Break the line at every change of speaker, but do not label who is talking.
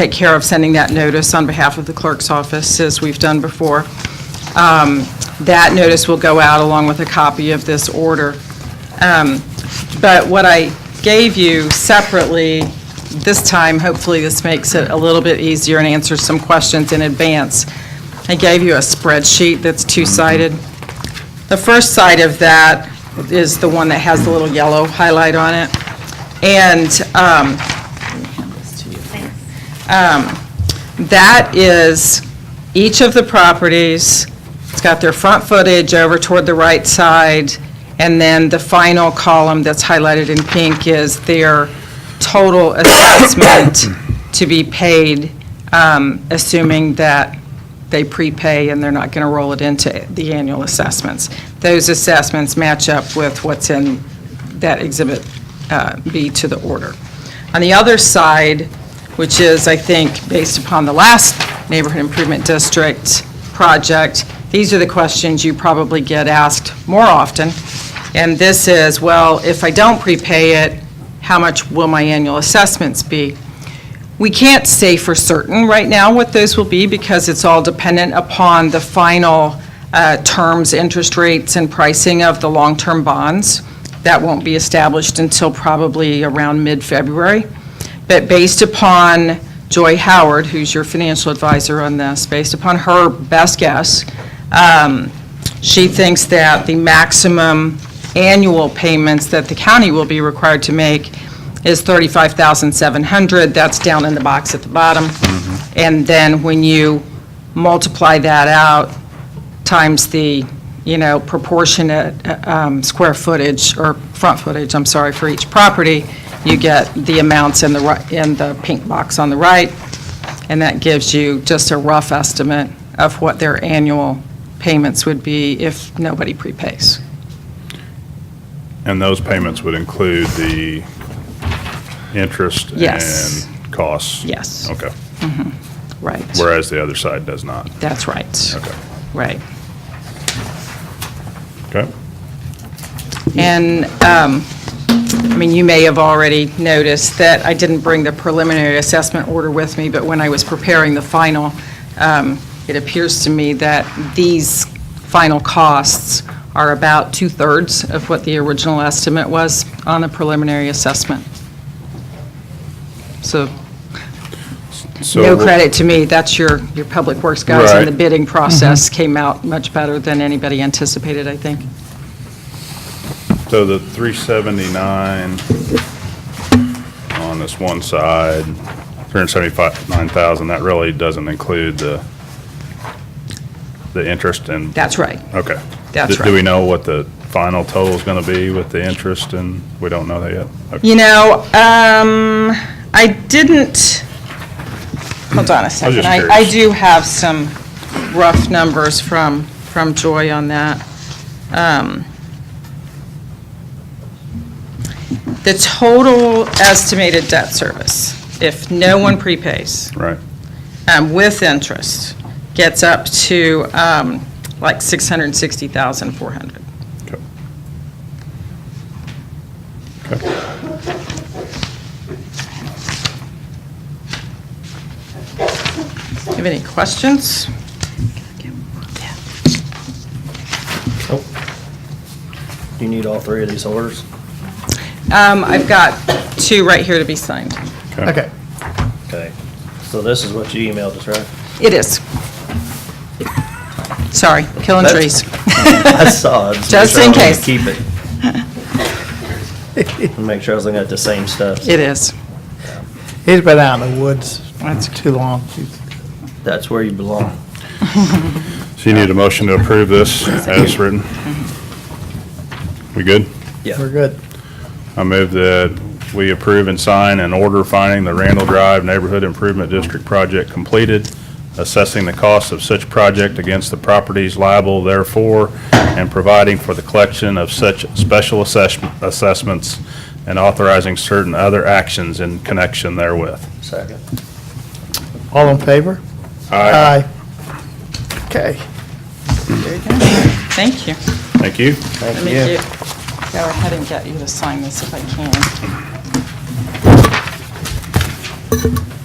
take care of sending that notice on behalf of the clerk's office, as we've done before. Um, That notice will go out along with a copy of this order. Um, But what I gave you separately, this time, hopefully this makes it a little bit easier and answers some questions in advance. I gave you a spreadsheet that's two-sided. The first side of that is the one that has the little yellow highlight on it. And um, um, that is each of the properties, it's got their front footage over toward the right side, and then the final column that's highlighted in pink is their total assessment to be paid, um, assuming that they prepay and they're not going to roll it into the annual assessments. Those assessments match up with what's in that Exhibit uh, B to the order. On the other side, which is, I think, based upon the last Neighborhood Improvement District project, these are the questions you probably get asked more often. And this is, well, if I don't prepay it, how much will my annual assessments be? We can't say for certain right now what those will be because it's all dependent upon the final uh, terms, interest rates, and pricing of the long-term bonds. That won't be established until probably around mid-February. But based upon Joy Howard, who's your financial advisor on this, based upon her best guess, um, she thinks that the maximum annual payments that the county will be required to make is 35,700. That's down in the box at the bottom. And then when you multiply that out times the, you know, proportionate uh, um, square footage, or front footage, I'm sorry, for each property, you get the amounts in the, ri- in the pink box on the right, and that gives you just a rough estimate of what their annual payments would be if nobody prepays.
And those payments would include the interest
Yes.
and costs?
Yes.
Okay.
Right.
Whereas the other side does not.
That's right.
Okay.
Right.
Okay.
And, um, I mean, you may have already noticed that I didn't bring the preliminary assessment order with me, but when I was preparing the final, um, it appears to me that these final costs are about two-thirds of what the original estimate was on the preliminary assessment. So,
So
no
we'll-
credit to me, that's your, your Public Works guys, and the
Right.
bidding process came out much better than anybody anticipated, I think.
So the 379 on this one side, 379,000, that really doesn't include the, the interest and,
That's right.
okay.
That's
Do- Do we
right.
know what the final total's going to be with the interest and, we don't know that yet? Okay.
You know, um, I didn't, hold on a
was
second.
just
I, I
curious.
do have some rough numbers from, from Joy on that. Um, The total estimated debt service, if no one prepays,
Right,
um, with interest, gets up to, um, like six hundred and sixty thousand, four hundred.
okay.
You have any questions?
Nope. Do you need all three of these orders?
Um, I've got two right here to be signed.
Okay.
Okay. So this is what you emailed us, right?
It is. Sorry, killing trees.
I saw it.
Just in case.
Keep it. And Make sure I was looking at the same stuff.
It is.
He's been out in the woods too long.
That's where you belong.
So you need a motion to approve this as written? We good?
Yeah.
We're good.
I move that we approve and sign an order finding the Randall Drive Neighborhood Improvement District project completed, assessing the cost of such project against the properties liable therefore, and providing for the collection of such special assess- assessments and authorizing certain other actions in connection therewith.
Second.
All in favor?
Aye.
Okay.
Thank you.
Thank you.
Let
Thank
me
you.
get- go ahead and get you to sign this if I can.